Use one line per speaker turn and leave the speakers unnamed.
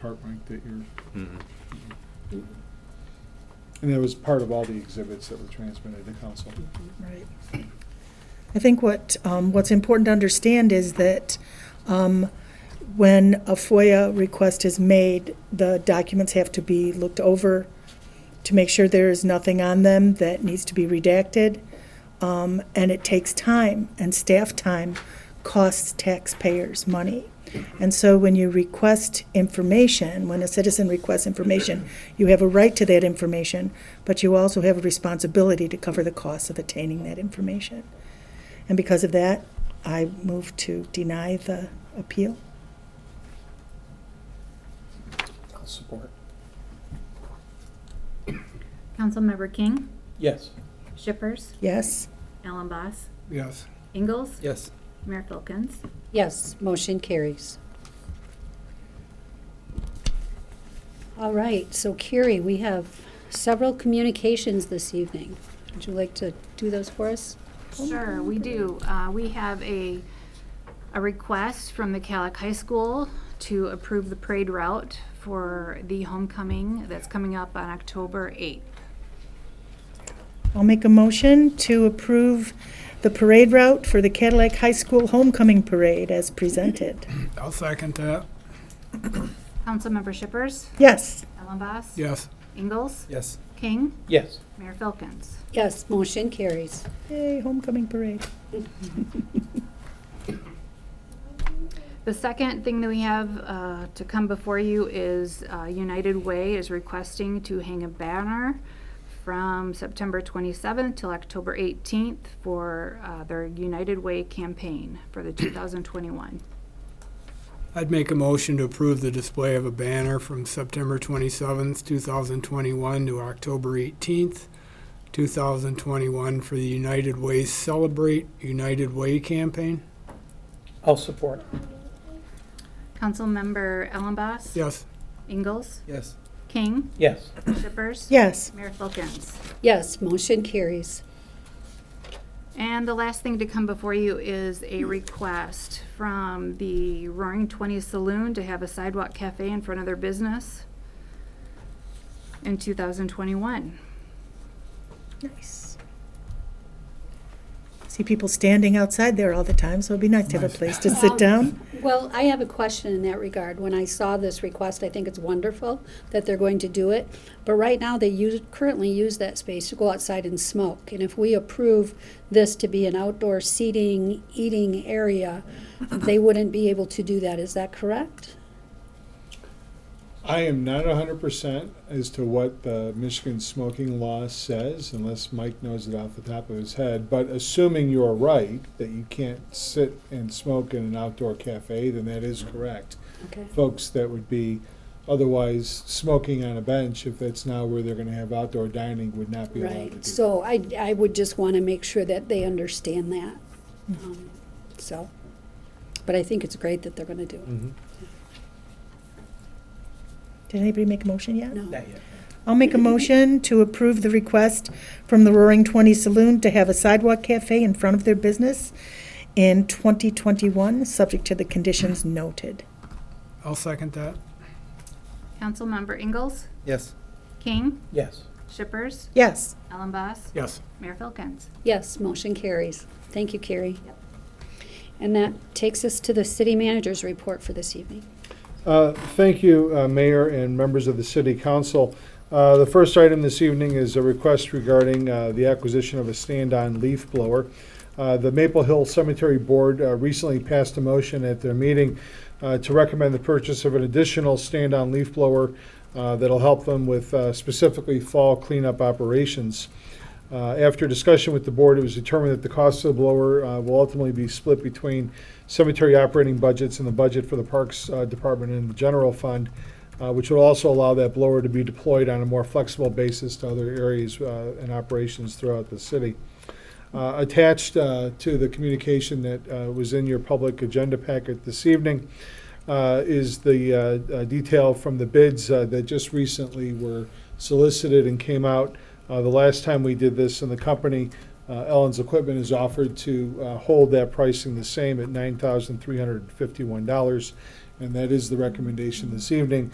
part, Mike, that you're,
Mhm.
and that was part of all the exhibits that were transmitted to council.
Right. I think what, um, what's important to understand is that, um, when a FOIA request is made, the documents have to be looked over to make sure there is nothing on them that needs to be redacted. Um, and it takes time and staff time costs taxpayers money. And so when you request information, when a citizen requests information, you have a right to that information, but you also have a responsibility to cover the costs of attaining that information. And because of that, I move to deny the appeal.
I'll support.
Councilmember King,
Yes.
Shippers,
Yes?
Allen Boss,
Yes.
Ingalls,
Yes.
Mayor Filkins.
Yes, motion carries. All right, so Carrie, we have several communications this evening. Would you like to do those for us?
Sure, we do. Uh, We have a, a request from the Calic High School to approve the parade route for the homecoming that's coming up on October 8th.
I'll make a motion to approve the parade route for the Cadillac High School Homecoming Parade as presented.
I'll second that.
Councilmember Shippers,
Yes?
Allen Boss,
Yes.
Ingalls,
Yes.
King,
Yes.
Mayor Filkins.
Yes, motion carries.
Yay, homecoming parade.
The second thing that we have uh, to come before you is uh, United Way is requesting to hang a banner from September 27th till October 18th for uh, their United Way campaign for the 2021.
I'd make a motion to approve the display of a banner from September 27th, 2021 to October 18th, 2021 for the United Way Celebrate United Way campaign.
I'll support.
Councilmember Ellenboss?
Yes.
Ingalls?
Yes.
King?
Yes.
Shippers?
Yes,
Mayor Filkins?
Yes, motion carries.
And the last thing to come before you is a request from the Roaring Twenties Saloon to have a sidewalk cafe in front of their business in 2021.
nice. See people standing outside there all the time, so it'd be nice to have a place to sit down.
Well, I have a question in that regard. When I saw this request, I think it's wonderful that they're going to do it. But right now, they use, currently use that space to go outside and smoke. And if we approve this to be an outdoor seating, eating area, they wouldn't be able to do that. Is that correct?
I am not hundred percent as to what the Michigan smoking law says, unless Mike knows it off the top of his head, but assuming you're right, that you can't sit and smoke in an outdoor cafe, then that is correct.
Okay.
Folks that would be otherwise smoking on a bench, if that's now where they're gonna have outdoor dining, would not be allowed to do
Right.
that.
So I, I would just want to make sure that they understand that.
Hmm.
Um, So, but I think it's great that they're going to do it.
Did anybody make a motion yet?
No.
yet.
I'll make a motion to approve the request from the Roaring Twenty Saloon to have a sidewalk cafe in front of their business in 2021, subject to the conditions noted.
I'll second that.
Councilmember Ingalls,
Yes.
King,
Yes.
Shippers,
Yes,
Ellenboss,
Yes.
Mayor Filkins.
Yes, motion carries. Thank you, Carrie. And that takes us to the city manager's report for this evening.
Uh, Thank you, uh, Mayor and members of the City Council. Uh, The first item this evening is a request regarding uh, the acquisition of a stand-on leaf blower. Uh, The Maple Hill Cemetery Board uh, recently passed a motion at their meeting uh, to recommend the purchase of an additional stand-on leaf blower uh, that'll help them with uh, specifically fall cleanup operations. Uh, After discussion with the board, it was determined that the cost of the blower uh, will ultimately be split between cemetery operating budgets and the budget for the Parks uh, Department and the general fund, uh, which will also allow that blower to be deployed on a more flexible basis to other areas uh, and operations throughout the city. Uh, Attached uh, to the communication that uh, was in your public agenda packet this evening uh, is the uh, uh, detail from the bids uh, that just recently were solicited and came out. Uh, The last time we did this, and the company, uh, Ellen's Equipment, has offered to uh, hold that pricing the same at $9,351. And that is the recommendation this evening.